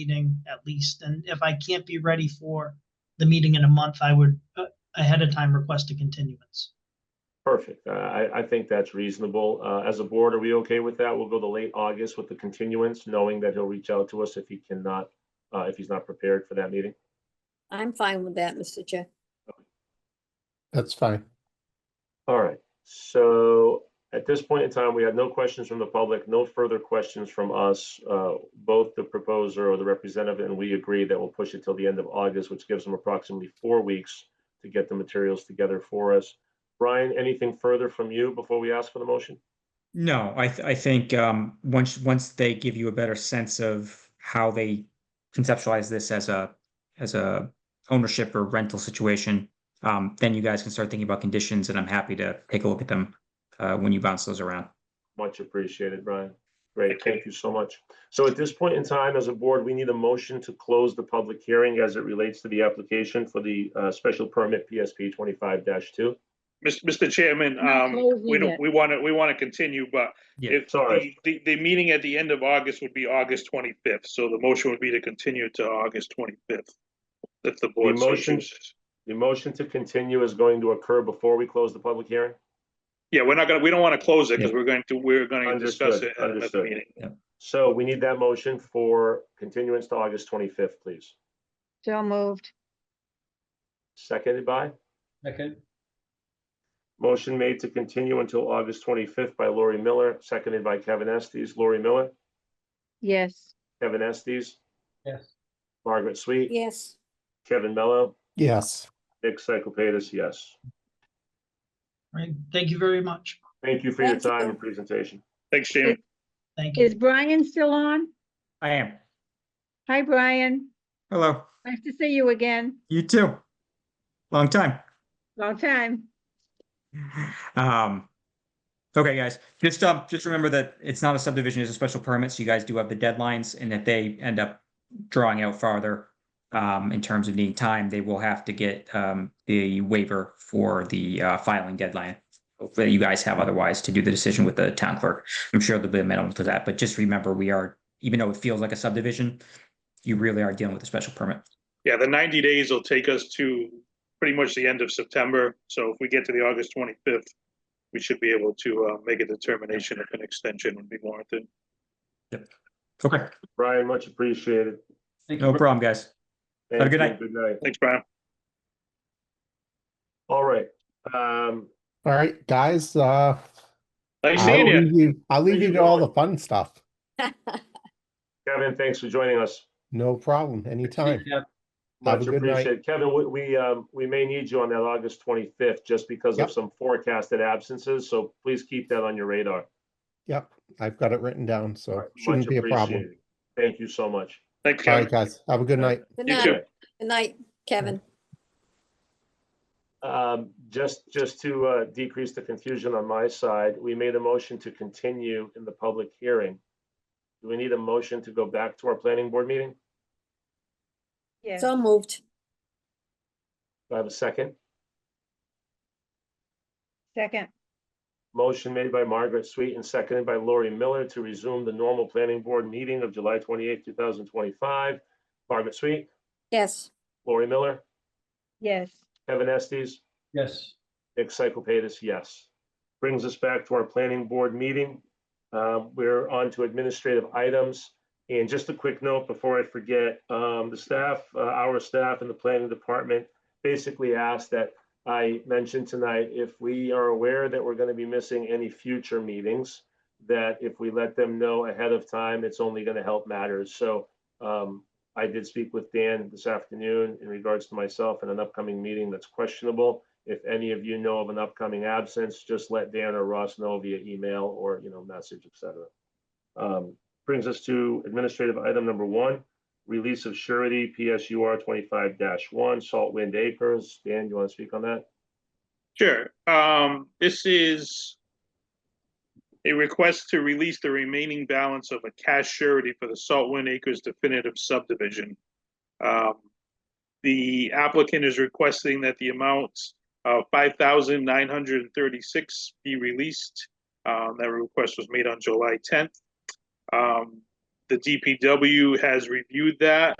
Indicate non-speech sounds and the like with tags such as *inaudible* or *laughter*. meeting at least. And if I can't be ready for the meeting in a month, I would uh, ahead of time request a continuance. Perfect. Uh, I, I think that's reasonable. Uh, As a board, are we okay with that? We'll go to late August with the continuance, knowing that he'll reach out to us if he cannot, uh, if he's not prepared for that meeting. I'm fine with that, Mr. Chair. That's fine. All right. So at this point in time, we have no questions from the public, no further questions from us. Uh, Both the proposer or the representative and we agree that we'll push it till the end of August, which gives them approximately four weeks to get the materials together for us. Brian, anything further from you before we ask for the motion? No, I th- I think um once once they give you a better sense of how they conceptualize this as a as a ownership or rental situation, um then you guys can start thinking about conditions and I'm happy to take a look at them uh when you bounce those around. Much appreciated, Brian. Great, thank you so much. So at this point in time, as a board, we need a motion to close the public hearing as it relates to the application for the uh, special permit PSP twenty-five two. Mis- Mr. Chairman, Not um, we closing don't, it. we want to, we want to continue, but Yeah. if the, Sorry. the, the meeting at the end of August would be August twenty-fifth, so the motion would be to continue to August twenty-fifth. If the board so motion- chooses. The motion to continue is going to occur before we close the public hearing? Yeah, we're not gonna, we don't want to close it because Yeah. we're going to, we're going to discuss Understood, it at another understood. meeting. So we need that motion for continuance to August twenty-fifth, please. So moved. Seconded by? Second, Motion made to continue until August twenty-fifth by Lori Miller, seconded by Kevin Estes. Lori Miller, Yes. Kevin Estes, yes, Margaret Sweet, Yes. *laughs* Kevin Mello, Yes, Nick Cyclepatis, yes. Right? Thank you very much. Thank you for your Thank you. time and presentation. Thanks, Jamie. Thank you. Is Brian still on? I am. Hi, Brian. Hello, Nice to see you again. you too. Long time. Long time. Um, okay, guys, just, um, just remember that it's not a subdivision, it's a special permit, so you guys do have the deadlines, and if they end up drawing out farther, um, in terms of needing time, they will have to get, um, the waiver for the, uh, filing deadline that you guys have otherwise to do the decision with the town clerk. I'm sure there'll be a minimum to that, but just remember, we are, even though it feels like a subdivision, you really are dealing with a special permit. Yeah, the ninety days will take us to pretty much the end of September, so if we get to the August twenty-fifth, we should be able to, uh, make a determination if an extension would be warranted. Okay, Brian, much appreciated. Thank you. no problem, guys. Thank a good you. night. Good night. Thanks, Brian. All right. Um, all right, guys, uh. Nice I'll seeing you. leave you- I'll leave you to all the fun stuff. Kevin, thanks for joining us. No problem, anytime. Yeah, Have a Much good night. appreciated. Kevin, we, we, um, we may need you on that August twenty-fifth just because of Yep. some forecasted absences, so please keep that on your radar. Yep, I've got it written down, so it shouldn't Much be a problem. appreciated. Thank you so much. Thanks, All Kevin. right, guys, have a good night. Good You night. too. Good night, Kevin. Um, just, just to, uh, decrease the confusion on my side, we made a motion to continue in the public hearing. Do we need a motion to go back to our planning board meeting? Yes. So moved. Do I have a second? Second. Motion made by Margaret Sweet and seconded by Lori Miller to resume the normal planning board meeting of July twenty-eighth, two thousand twenty-five. Margaret Sweet, Yes. Lori Miller, Yes. Kevin Estes, yes, Nick Cyclepatis, yes. Brings us back to our planning board meeting. Um, We're on to administrative items. And just a quick note before I forget, um, the staff, uh, our staff in the planning department basically asked that I mentioned tonight, if we are aware that we're going to be missing any future meetings, that if we let them know ahead of time, it's only going to help matters. So um, I did speak with Dan this afternoon in regards to myself and an upcoming meeting that's questionable. If any of you know of an upcoming absence, just let Dan or Ross know via email or, you know, message, et cetera. Um, Brings us to administrative item number one, release of surety PSUR twenty-five one, Salt Wind Acres. Dan, you want to speak on that? Sure, um, this is a request to release the remaining balance of a cash surety for the Saltwind Acres definitive subdivision. Um, the applicant is requesting that the amount of five thousand nine hundred and thirty-six be released. Um, that request was made on July tenth. Um, the DPW has reviewed that